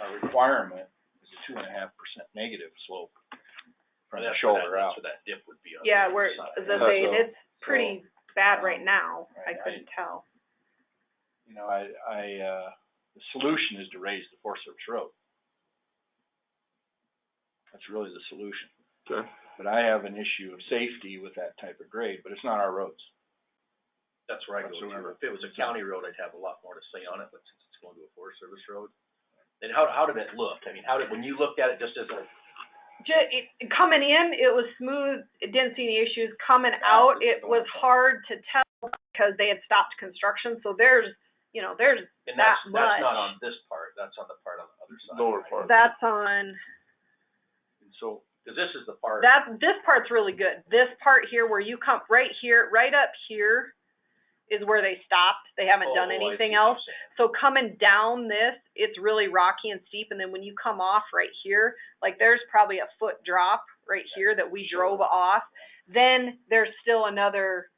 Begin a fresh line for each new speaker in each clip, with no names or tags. our requirement is a two and a half percent negative slope from the
That's where that-
shoulder out.
That's where that dip would be on. the
Yeah,
other
we're,
side.
as I say,
So-
it's pretty bad right now, I
Right, I-
couldn't tell.
You know, I, I, uh, the solution is to raise the Forest Service road. That's really the solution.
Okay.
But I have an issue of safety with that type of grade, but it's not our roads.
That's where I go
whatsoever.
to. If it was a county road, I'd have a lot more to say on it, but since it's going to a Forest Service road. And how, how did it look? I mean, how did, when you looked at it just as a,
Ju- it, coming in, it was smooth, it didn't see any issues, coming out, it was hhard to tell because they had stopped construction, so there's, you know, there's,
and that's,
That
that's not
much.
on this part, that's on the part on the other side.
Lower
right?
part.
that's on,
And so, cause this is the part,
that, this part's really good. This part here where you come, right here, right up here is where they stopped, they haven't done
Oh, I see
anything
what you're
else. So coming down this, it's really rocky and steep, and then when you come off right here, like there's probably a foot drop right here that we drove off. Then there's still another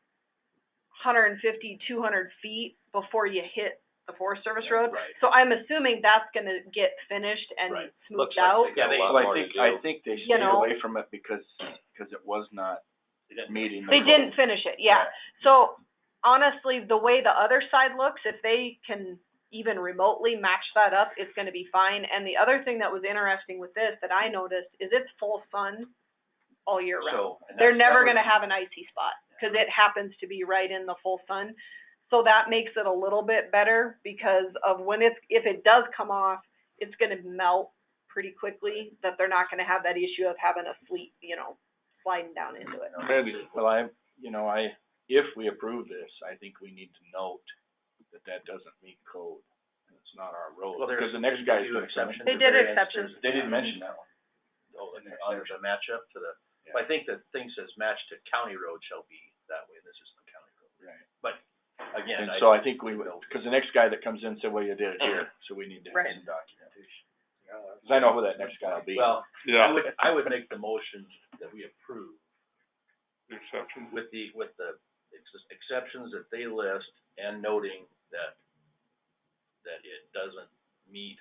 150, 200 feet before you hit the Forest Service
Yeah,
Road.
right.
So I'm assuming that's gonna get finished and
Right.
smoothed
like
out.
they got a
Yeah,
lot
Well, I
more to
think,
do.
I think they
You
stayed
know.
away from it because, because it was not
They didn't-
meeting the
They
code.
didn't finish it, yeah. So honestly, the way the other side looks, if they can even remotely match that up, it's gonna be fine. And the other thing that was interesting with this that I noticed is it's full sun all year round.
So. and
They're
that's- that
never
was-
gonna have an icy spot, cause it happens to be right in the full sun. So that makes it a little bit better because of when it's, if it does come off, it's gonna melt pretty quickly, that they're not gonna have that issue of having a sleet, you know, sliding down into it.
Mandy,
Well, I, you know, I, if we approve this, I think we need to note that that doesn't meet code. and It's not our road,
Well, there's-
because the next
they
guy's
do
gonna come in.
exceptions
They
at
did
various-
exceptions.
there's-
They didn't mention that one.
Oh, and there- there's a matchup to the,
Yeah.
I think the thing says match to county road shall be that way, this is the county road.
Right.
Again,
And
I.
so I think we would, cause the next guy that comes in said, well, you did it here, so we need to have
Right.
some documentation. Cause I know who that next guy will be.
Well, I
yeah,
would, I would make the motion that we approve
exception.
with the, with the ex- exceptions that they list and noting that, that it doesn't meet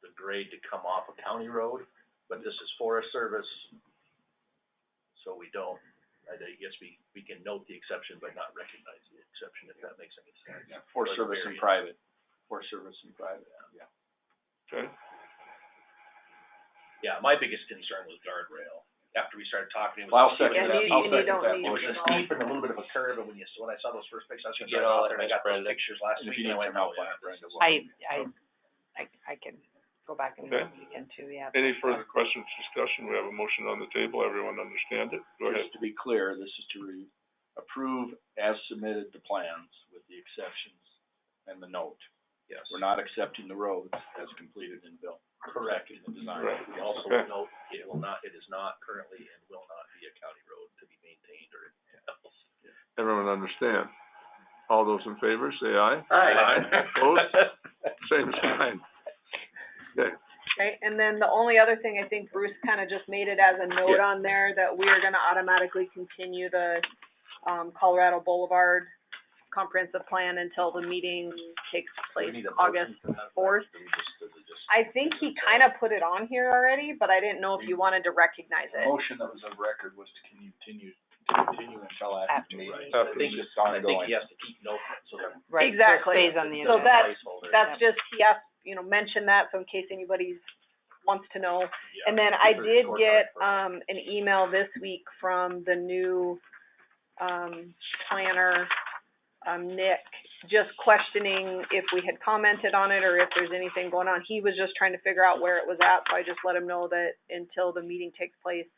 the grade to come off a county road, but this is Forest Service, so we don't, I think- guess we, we can note the exception but not recognize the exception, if that makes any sense.
Yeah, For
Like
service and
various-
private, for service and private, yeah.
Okay.
Yeah, my biggest concern was guardrail, after we started talking, it was.
Well, I'll second
Yeah,
that,
you-
I'll
you
second
don't
that
need
It was
motion.
a
Emotional.
steep and a little bit of a curve, and when you, when I saw those first pictures, I was gonna
Get
drive
all
out there,
that
and I got those
Brenda.
pictures last
And if
week,
you
and I
need some
went,
help,
oh, yeah.
Brenda will.
I, I, I, I can go back and look
Okay.
again too, yeah.
Any further questions, discussion? We have a motion on the table. Everyone understand it? Go ahead.
Just to be clear, this is to re- approve as submitted the plans with the exceptions and the note.
Yes,
We're not accepting the roads as completed and built.
correct.
In the design.
Right.
We also
Okay.
note, it will not, it is not currently and will not be a county road to be maintained or anything else.
Everyone understand? All those in favor, say aye. Opposed?
Aye.
Same sign. Okay,
Okay, and then the only other thing, I think Bruce kinda just made it as a note
Yeah.
on there that we are gonna automatically continue the, um, Colorado Boulevard comprehensive plan until the meeting takes place August fourth. I think he kinda put it on here already, but I didn't know if you wanted to recognize
The
it.
motion that was of record was to continue, to continue until after
After.
the meeting.
I think,
It's just
I think
ongoing.
he has to keep note, of it, so that.
Right, so it
Exactly.
Stays on the
So
agenda.
that-
placeholder.
That's just, he asked, you know, mention that, so in case anybody wants to know,
Yeah.
And then I
These are
did
short
get,
term.
um, an email this week from the new, um, planner, um, Nick, just questioning if we had commented on it or if there's anything going on. He was just trying to figure out where it was at, so I just let him know that until the meeting takes place,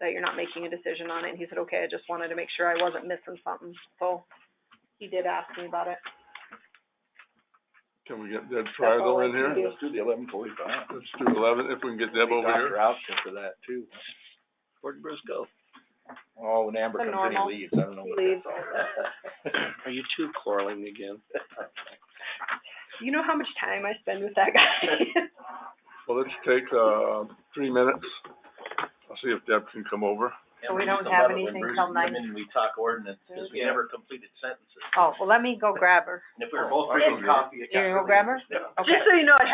that you're not making a decision on it. And he said, okay, I just wanted to make sure I wasn't missing something, so he did ask me about it.
can we get Deb Trial in
That's all I can
here?
Let's do the eleven forty-five.
Let's do eleven, if we can get Deb over
Doctor
here.
Outfit for that too.
Where'd Bruce go?
Oh, when Amber
The
comes in,
normal.
he leaves, I don't know
He
what that's
leaves.
all about.
Are you two quarreling again?
You know how much time I spend with that guy?
Well, let's take, uh, three minutes. I'll see if Deb can come over.
And we
we
used
don't
to
have
love it when
anything
Bruce
till
came
nine.
in and we talk ordinance, cause we
Yeah.
never completed sentences.
Oh, well, let me go grab her.
And if we were both
Oh, I
drinking
don't know.
coffee, it
You
got
gonna
really.
grab her?
Yeah.
Okay.
Just so you know, it